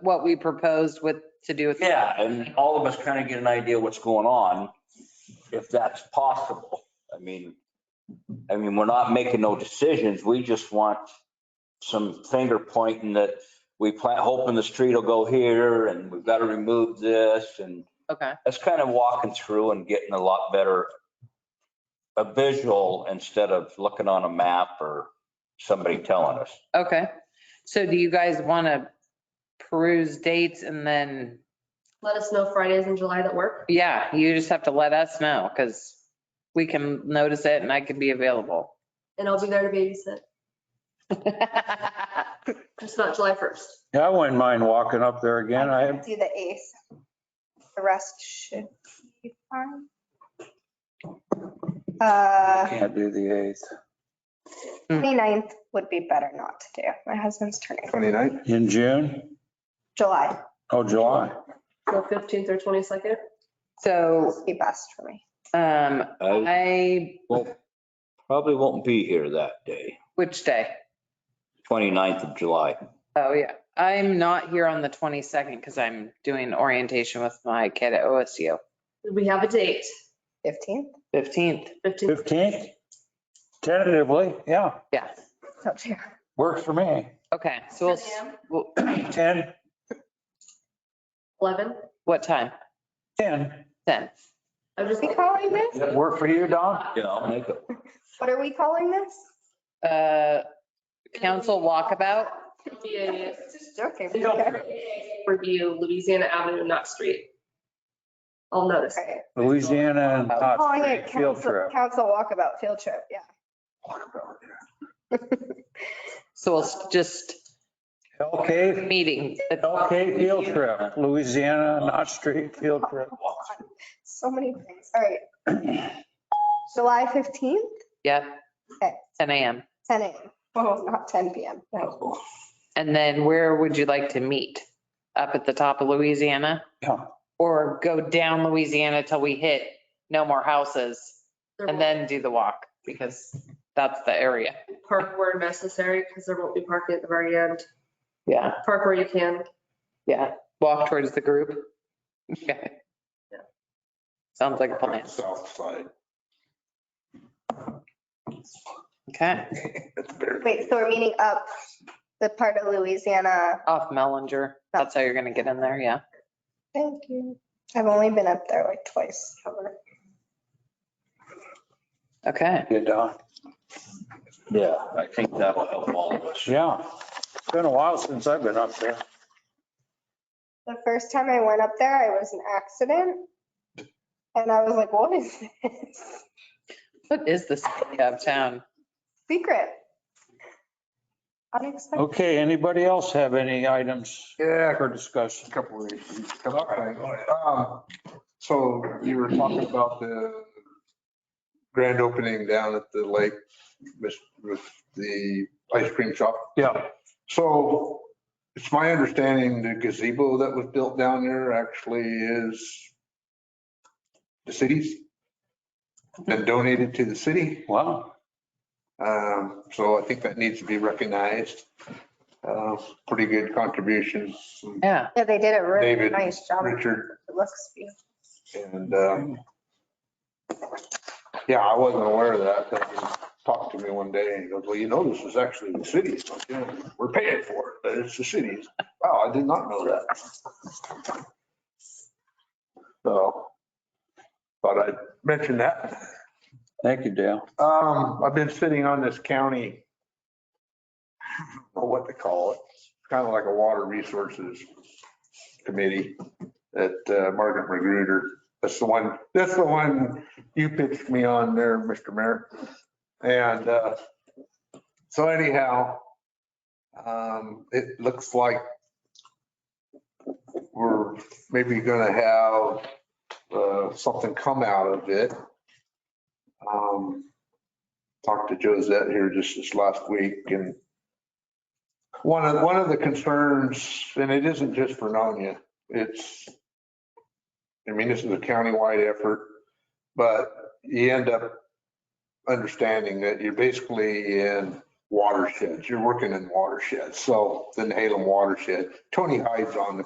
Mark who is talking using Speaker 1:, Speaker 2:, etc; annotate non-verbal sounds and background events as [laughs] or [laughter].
Speaker 1: what we proposed with, to do with.
Speaker 2: Yeah, and all of us kind of get an idea what's going on, if that's possible. I mean, I mean, we're not making no decisions. We just want some finger pointing that we plant, hoping the street will go here and we've got to remove this and
Speaker 1: Okay,
Speaker 2: that's kind of walking through and getting a lot better a visual instead of looking on a map or somebody telling us.
Speaker 1: okay. So do you guys want to peruse dates and then,
Speaker 3: Let us know Fridays in July that work.
Speaker 1: yeah, you just have to let us know because we can notice it and I can be available.
Speaker 3: And I'll be there to babysit. It's not July 1st.
Speaker 4: Yeah, I wouldn't mind walking up there again. I
Speaker 5: Do the eighth. The rest should be fine. Uh,
Speaker 4: can't do the 8th.
Speaker 5: 29th would be better not to do. My husband's turning,
Speaker 6: 29th?
Speaker 4: In June?
Speaker 5: July
Speaker 4: Oh, July.
Speaker 3: So 15th or 22nd.
Speaker 1: So,
Speaker 5: would be best for me.
Speaker 1: um,
Speaker 2: I
Speaker 1: I,
Speaker 2: probably won't be here that day,
Speaker 1: which day?
Speaker 2: 29th of July.
Speaker 1: Oh, yeah. I'm not here on the 22nd because I'm doing orientation with my kid at OSU.
Speaker 3: We have a date,
Speaker 5: 15th?
Speaker 1: 15th.
Speaker 3: 15th.
Speaker 4: 15th? Tentatively, yeah,
Speaker 1: Yeah.
Speaker 5: Oh, dear.
Speaker 4: works for me. [clears throat]
Speaker 1: Okay. So we'll, s- we'll-
Speaker 4: 10,
Speaker 3: 11.
Speaker 1: what time?
Speaker 4: 10.
Speaker 1: 10.
Speaker 3: I'm just,
Speaker 5: What are we calling this?
Speaker 4: Does that work for you, Don?
Speaker 2: Yeah, I'll make it.
Speaker 5: What are we calling this?
Speaker 1: Uh, council walkabout?
Speaker 3: it'll be a
Speaker 5: Just joking. Okay.
Speaker 3: review Louisiana Avenue, not street. I'll notice.
Speaker 5: Alright.
Speaker 4: Louisiana and Knott's
Speaker 5: Calling
Speaker 4: Creek
Speaker 5: it
Speaker 4: field
Speaker 5: council,
Speaker 4: trip.
Speaker 5: council walkabout field trip, yeah.
Speaker 1: So we'll s- just
Speaker 4: Hell Cave,
Speaker 1: meeting.
Speaker 4: Hell Cave field trip, Louisiana, Knott Street field trip.
Speaker 5: So many things. All right. [clears throat] July 15th,
Speaker 1: Yeah.
Speaker 5: Okay.
Speaker 1: 10 a.m.
Speaker 5: 10 a.m. Oh, not 10 p.m. No.
Speaker 1: And then where would you like to meet? Up at the top of Louisiana?
Speaker 4: Yeah.
Speaker 1: Or go down Louisiana till we hit no more houses
Speaker 3: There
Speaker 1: and
Speaker 3: won't
Speaker 1: then do the walk because that's the area.
Speaker 3: be park where necessary because there won't be parking at the very end.
Speaker 1: Yeah,
Speaker 3: Park where you can.
Speaker 1: yeah. Walk towards the group. Okay.
Speaker 3: Yeah.
Speaker 1: Sounds like a plan.
Speaker 6: South side.
Speaker 1: Okay.
Speaker 6: That's better.
Speaker 5: Wait, so we're meeting up the part of Louisiana.
Speaker 1: Off Mellinger. That's how you're going to get in there. Yeah.
Speaker 5: Thank you. I've only been up there like twice. ever.
Speaker 1: Okay.
Speaker 4: Yeah, Don.
Speaker 2: Yeah, I think that'll help all of us.
Speaker 4: Yeah. It's been a while since I've been up there.
Speaker 5: The first time I went up there, I was an accident. And I was like, what is this? [laughs]
Speaker 1: What is this area of town?
Speaker 5: Secret. Unexpected.
Speaker 4: Okay, anybody else have any items
Speaker 6: Yeah,
Speaker 4: for discussion?
Speaker 6: couple of issues, couple of things. Um, So you were talking about the grand opening down at the lake with, with the ice cream shop.
Speaker 4: Yeah.
Speaker 6: So it's my understanding the gazebo that was built down there actually is the city's and donated to the city.
Speaker 4: Wow.
Speaker 6: Um, So I think that needs to be recognized. Uh, Pretty good contributions. from
Speaker 1: Yeah.
Speaker 5: Yeah, they did a really
Speaker 6: David,
Speaker 5: nice job. It
Speaker 6: Richard
Speaker 5: looks beautiful.
Speaker 6: And, uh, yeah, I wasn't aware of that. They talked to me one day and he goes, well, you know, this is actually the city's. Yeah, We're paying for it, but it's the city's. Wow, I did not know that. So, thought I'd mention that.
Speaker 4: Thank you, Dale.
Speaker 6: Um, I've been sitting on this county, I don't know what to call it, It's kind of like a water resources committee that uh, Margaret Magruder, that's the one, that's the one you pitched me on there, Mr. Mayor. And uh, so anyhow, um, it looks like we're maybe gonna have uh, something come out of it. Um, talked to Josette here just this last week and one of, one of the concerns, and it isn't just for Nonia, it's, I mean, this is a countywide effort, but you end up understanding that you're basically in watersheds. You're working in watersheds. So the Halem watershed, Tony Hyde's on the